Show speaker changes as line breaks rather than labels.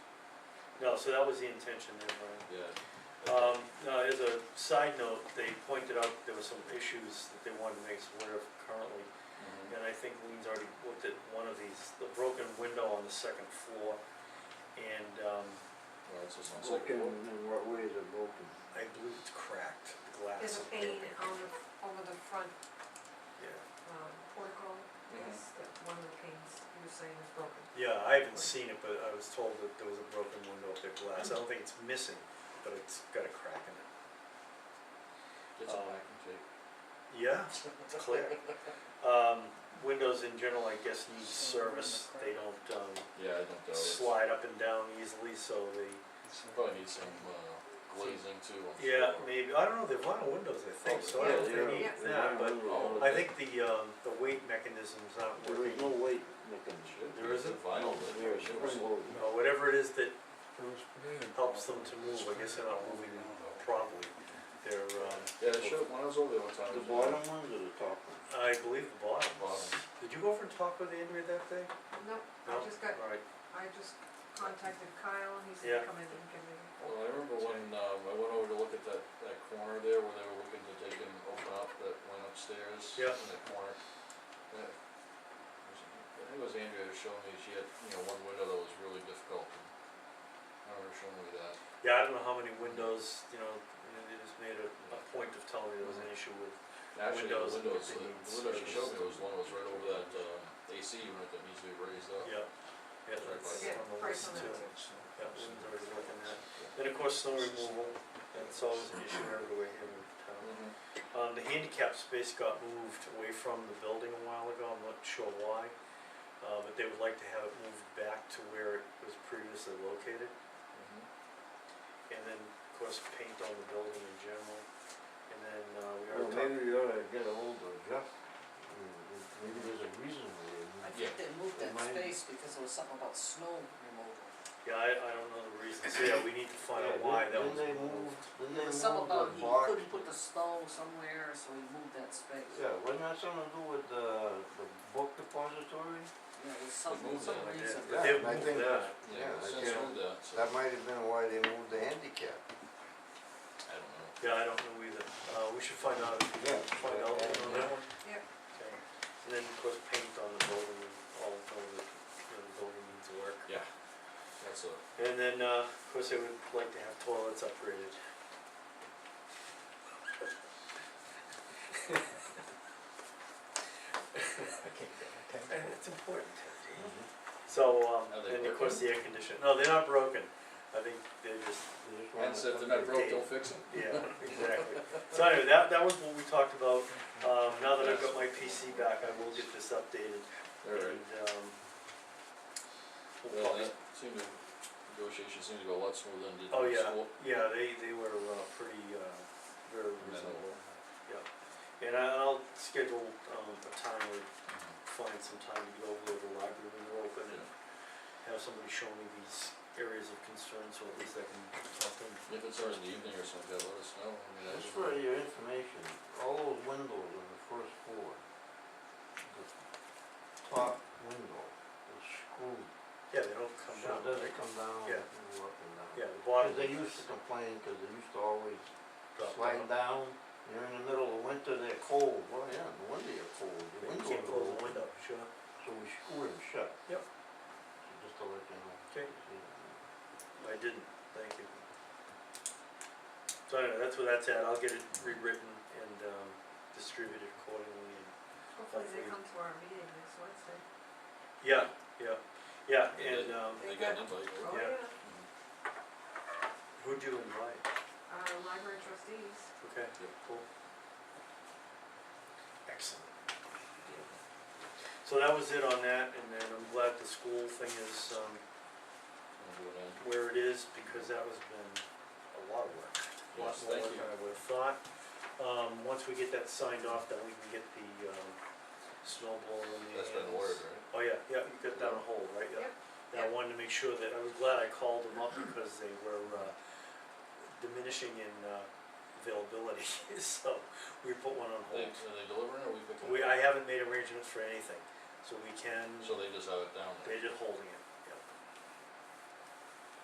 No, so that was the intention there, Brian.
Yeah.
Um, now, as a side note, they pointed out there were some issues that they wanted to make us aware of currently.
Mhm.
And I think Lean's already looked at one of these, the broken window on the second floor. And, um,
Well, it's just on
Broken,
second.
in what way is it broken?
I believe it's cracked, the glass.
There's a pane on the, over the front,
Yeah,
um, portico,
Mm-hmm.
yes, that one of the panes you were saying was broken.
yeah, I haven't seen it, but I was told that there was a broken window up there, glass. I don't think it's missing, but it's got a crack in it.
It's a
Um,
black and shake.
Yeah, it's clear. Um, windows in general, I guess, need service, they don't, um,
Yeah, I don't doubt it.
slide up and down easily, so they,
Probably need some uh, glazing too, I'm sure.
yeah, maybe, I don't know, they're vinyl windows, I think, so I don't
Yeah,
think they need
yeah.
that, but
Oh,
I think the, um, the weight mechanisms aren't
There is
working.
no weight
It
mechanism.
should be.
There
It's a
isn't?
Vinyl, but
There is
it
spring
should-
loaded.
No, whatever it is that helps them to move, I guess they're not moving properly, they're, um,
Yeah, it showed, when I was over there one time.
The
it was
bottom
like-
ones or the top ones?
I believe the bottom.
Bottom.
Did you go over and talk with Andrea that day?
Nope, I
No?
just got,
Alright,
I just contacted Kyle and he
Yeah.
said, come in and give me.
Well, I remember when, um, I went over to look at that, that corner there where they were looking to take and open up that went upstairs.
Yeah.
In that corner. Yeah. I think it was Andrea who showed me, she had, you know, one window that was really difficult. I remember showing me that.
yeah, I don't know how many windows, you know, they just made a, a point of telling me there was an issue with
Actually, the
Windows
windows,
and
the
everything needs
the window she showed me
service.
was one that was right over that, um, AC unit that needs to be raised up.
Yeah, yeah,
Sorry,
that's
Yeah,
on the
price
list
on that
too.
too.
Yeah, Lynn's already looking at. Then, of course, snow removal, that's always an issue everywhere here in town.
Mhm.
Um, the handicap space got moved away from the building a while ago, I'm not sure why. Uh, but they would like to have it moved back to where it was previously located.
Mhm.
And then, of course, paint on the building in general. And then, uh, we
Well,
already talked,
maybe you ought to get ahold of Jeff. Mm, Maybe there's a reason
I
why.
Yeah.
think they moved that
Mine-
space because there was something about snow removal.
yeah, I, I don't know the reason, so yeah, we need to find out why that was
Then they
moved.
moved, then they
There was
moved
something about
the
he
box.
couldn't put the snow somewhere, so he moved that space.
Yeah, wasn't that something to do with the, the book depository?
Yeah, it was some,
moved
some
that, I
reason.
Yeah,
They've
I
moved
think-
that.
Yeah,
I
since
can't-
moved that, so, I
That might have been why they moved the handicap.
don't know.
Yeah, I don't know either, uh, we should find out,
Yeah.
find out on that one.
Yeah.
Okay, and then of course paint on the building, and all of the, you know, the building needs work.
Yeah, that's a,
And then, uh, of course, I would like to have toilets upgraded. And it's important. So, um,
Are they
and of course, the air conditioner, no, they're not broken, I think they're just,
and so if they're not broke, don't fix it.
yeah, exactly. So anyway, that, that was what we talked about, um, now that I've got my PC back, I will get this updated and,
All right.
um. we'll
Well,
probably-
that seemed to, negotiations seemed to go a lot smoother than it did
Oh,
in
yeah.
school.
Yeah, they, they were, uh, pretty, uh, very reasonable, yeah. And I- I'll schedule, um, a time where
Mhm.
find some time to go over to the library when they're open and have somebody show me these areas of concern, so at least I can talk to them.
If it's early in the evening or something, let us know, I mean, I
Just
just-
for your information, all those windows on the first floor, the top window is screwed,
Yeah, they don't come
so
down,
it doesn't
right?
come down
Yeah.
and go up and down.
Yeah, the
'Cause
bottom.
they used to complain, cause they used to always
drop
slide
down.
down, you're in the middle of winter, they're cold, well, yeah, no wonder you're cold,
You
your windows
can't
are
close the
open.
window, sure.
so we screw them shut.
Yep.
So just to let you know.
Okay.
Yeah.
I didn't, thank you. So anyway, that's where that's at, I'll get it rewritten and, um, distributed accordingly and
Hopefully they come to our meeting next Wednesday.
Yeah, yeah, yeah,
They
and,
did.
um,
They got an invite, right?
Oh,
Yeah.
yeah,
Mhm.
who'd you invite?
uh, library trustees,
Okay,
Yep.
cool. Excellent. So that was it on that, and then I'm glad the school thing is, um,
Wanna do it then?
where it is, because that was been a lot of work. A lot
Yes,
more
thank
work
you.
than I would've thought. Um, once we get that signed off, then we can get the, um, snowball in the
That's been
hands.
ordered, right?
Oh, yeah, yeah, you got that on hold, right, yeah.
Yep,
And I
yep.
wanted to make sure that, I was glad I called them up because they were uh, diminishing in uh, availability, so we put one on
They,
hold.
are they delivering or we picking?
We,
it
I haven't made arrangements for anything, so we can,
up? So they just have it down there?
they're just holding it.